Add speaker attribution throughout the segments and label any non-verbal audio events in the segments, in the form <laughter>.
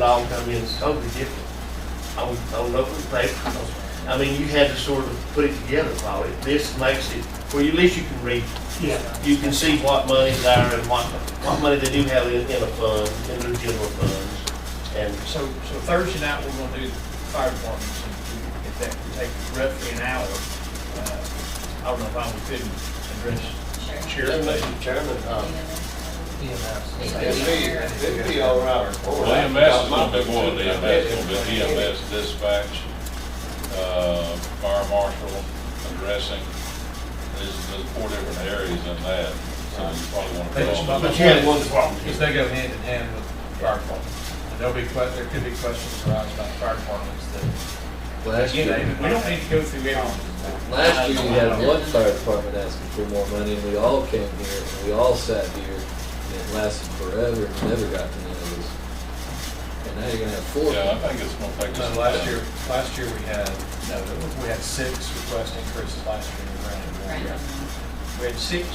Speaker 1: all come in totally different on, on open paper. because, I mean, you had to sort of put it together, probably. This makes it, where you- at least you can read,
Speaker 2: Yeah,
Speaker 1: you can see what money's there and what, what money they do have in, in a fund, in their general funds. And
Speaker 2: so, so Thursday night, we're gonna do the fire departments, and we- if that could take roughly an hour, uh, I don't know if I would fit and address sheriff, but
Speaker 3: Mr. Chairman, um, it'd
Speaker 4: EMS.
Speaker 3: be, it'd be all right.
Speaker 5: Well, EMS is gonna be more than EMS, it's gonna be EMS dispatch, uh, fire marshal, addressing, there's, there's four different areas in that, so you probably wanna. put all of
Speaker 1: But
Speaker 5: them.
Speaker 1: you had one problem.
Speaker 6: Because they go hand in hand with fire department. And there'll be, que- there could be questions arise about fire departments that,
Speaker 7: Last
Speaker 6: you know, Uh,
Speaker 7: year,
Speaker 6: we don't need to go through everything.
Speaker 7: last year you had one fire department asking for more money and we all came here and we all sat here and it lasted forever and never got to none of this. And now you're gonna have four.
Speaker 5: Yeah, I think it's gonna take us.
Speaker 6: So last year, last year we had, no, we had six request increases last year, we ran it.
Speaker 2: we had six.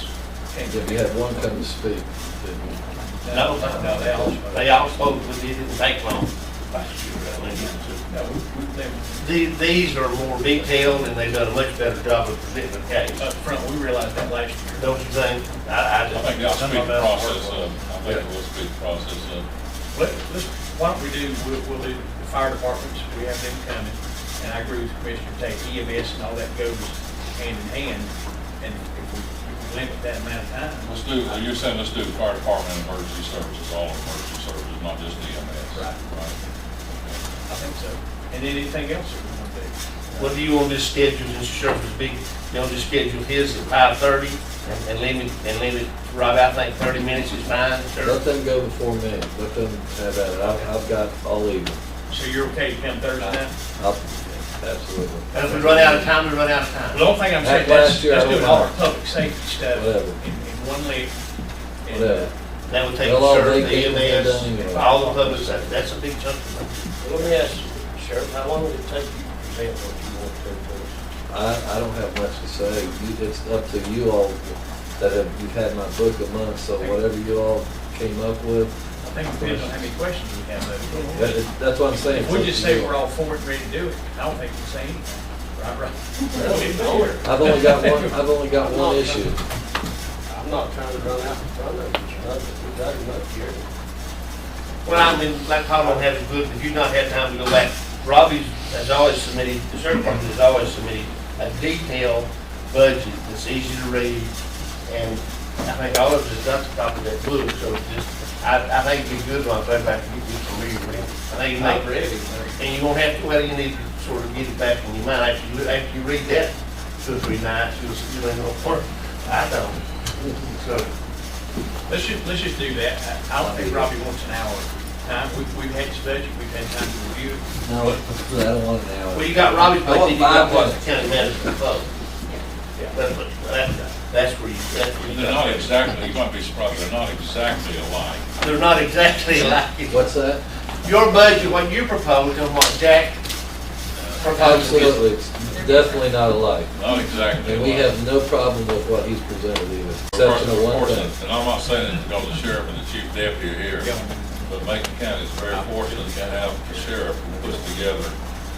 Speaker 6: Can't get
Speaker 7: If you had one come to speak, didn't you?
Speaker 1: No,
Speaker 6: No, they all.
Speaker 1: They all spoke, but it didn't take long. Last year, I think.
Speaker 6: No, we, we, they,
Speaker 1: The- These are more detailed and they've done a much better job of presenting the case.
Speaker 6: up uh, front, we realized that last year.
Speaker 1: Don't you think? I, I
Speaker 5: I
Speaker 1: just.
Speaker 5: think it'll speed the process up, I think it will speed the process up.
Speaker 6: Let, let's, why don't we do, we'll, we'll do the fire departments, we have them coming, and I agree with Commissioner Tate, EMS and all that goes hand in hand, and if we, if we limit that amount of time.
Speaker 5: Let's do, well, you're saying let's do fire department and emergency services, all emergency services, not just EMS.
Speaker 6: Right. I
Speaker 5: Right.
Speaker 6: think so. And then anything else that we want to do?
Speaker 1: What do you want to schedule, Mr. Sheriff's big, you want to schedule his at five thirty and limit, and limit, Rob, I think thirty minutes is fine,
Speaker 7: Let
Speaker 1: Sheriff.
Speaker 7: them go before me, let them have at it, I've, I've got all evening,
Speaker 6: So you're okay to come Thursday night?
Speaker 7: I'll, absolutely,
Speaker 1: And if we run out of time, we run out of
Speaker 6: The
Speaker 1: time.
Speaker 6: only thing I'm saying,
Speaker 7: Like
Speaker 6: let's,
Speaker 7: last year,
Speaker 6: let's
Speaker 7: I
Speaker 6: do
Speaker 7: would
Speaker 6: all our
Speaker 7: not.
Speaker 6: public safety stuff
Speaker 7: Whatever.
Speaker 6: in, in one leg. and, uh,
Speaker 7: whatever.
Speaker 1: That would take
Speaker 7: They'll all
Speaker 1: Sheriff,
Speaker 7: vacate and they're done
Speaker 1: the EMS,
Speaker 7: anyway.
Speaker 1: all the public, safety. that's a big chunk of money.
Speaker 3: Let me ask you, Sheriff, how long would it take you to present what you want to do?
Speaker 7: I, I don't have much to say, You- it's up to you all that have, you've had my book a month, so whatever you all came up with,
Speaker 6: I think it depends on how many questions we have though.
Speaker 7: that, that's what I'm saying.
Speaker 6: If we just say we're all for it, and ready to do it, I don't think we say anything. Right, right. We'll get forward.
Speaker 7: I've only got one, I've only got one issue,
Speaker 3: I'm not trying to run out in front of you, Sheriff, but we got enough here.
Speaker 1: Well, I mean, like Paul don't have it good, but you've not had time to go back. Robbie's has always submitted, the sheriff department has always submitted a detailed budget that's easy to read. And I think all of us has got the copy of that book, so it's just, I, I think it'd be good on that back to get you familiar with it. I think you
Speaker 3: Not
Speaker 1: make,
Speaker 3: ready.
Speaker 1: and you won't have to, well, you need to sort of get it back in your mind. After you, after you read that two or three nights, you'll, you'll ain't gonna work. I don't. So,
Speaker 6: Let's just, let's just do that. I- I don't think Robbie wants an hour. Time, we've, we've had his budget, we've had time to review it.
Speaker 7: no, I don't want an hour.
Speaker 1: Well, you got Robbie's
Speaker 7: I
Speaker 1: budget,
Speaker 7: want
Speaker 1: you got
Speaker 7: five
Speaker 1: what
Speaker 7: minutes.
Speaker 1: the county manager vote. That's, what- that- that's where you, that's where you
Speaker 5: They're not
Speaker 1: got.
Speaker 5: exactly, you might be surprised, they're not exactly alike.
Speaker 1: They're not exactly <laughs> like it.
Speaker 7: What's that?
Speaker 1: Your budget, what you proposed and what Jack proposed is
Speaker 7: Absolutely, it's definitely not alike,
Speaker 5: Not exactly.
Speaker 7: and we
Speaker 5: alike.
Speaker 7: have no problem with what he's presented either,
Speaker 5: Of course-
Speaker 7: exception of
Speaker 5: of
Speaker 7: one
Speaker 5: course,
Speaker 7: thing.
Speaker 5: And I'm not saying it because the sheriff and the chief deputy are here, but Macon County is very fortunate to have the sheriff who puts together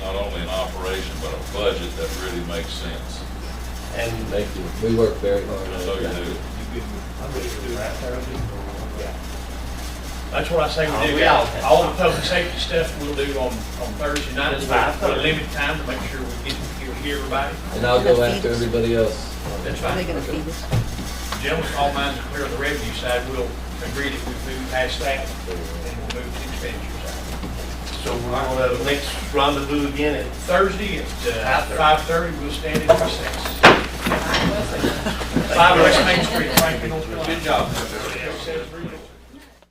Speaker 5: not only an operation, but a budget that really makes sense.
Speaker 1: and
Speaker 7: Thank you, we work very hard
Speaker 5: So
Speaker 7: on
Speaker 5: you
Speaker 7: it.
Speaker 5: do.
Speaker 6: That's what I say we do. All all the public safety stuff we'll do on, on Thursday night.
Speaker 1: That's fine.
Speaker 6: We'll limit time to make sure we get, hear- hear everybody.
Speaker 7: And I'll go after everybody else.
Speaker 6: That's
Speaker 4: Are they
Speaker 6: fine.
Speaker 4: gonna feed us?
Speaker 6: Gentlemen, all minds are clear on the revenue side. We'll agree that we move past that and we'll move to expenditure side.
Speaker 1: so we're gonna next rendezvous again at
Speaker 6: Thursday at uh,
Speaker 1: After.
Speaker 6: five thirty, we'll stand in recess. Five West Main Street, Franklin, North Carolina. Good job.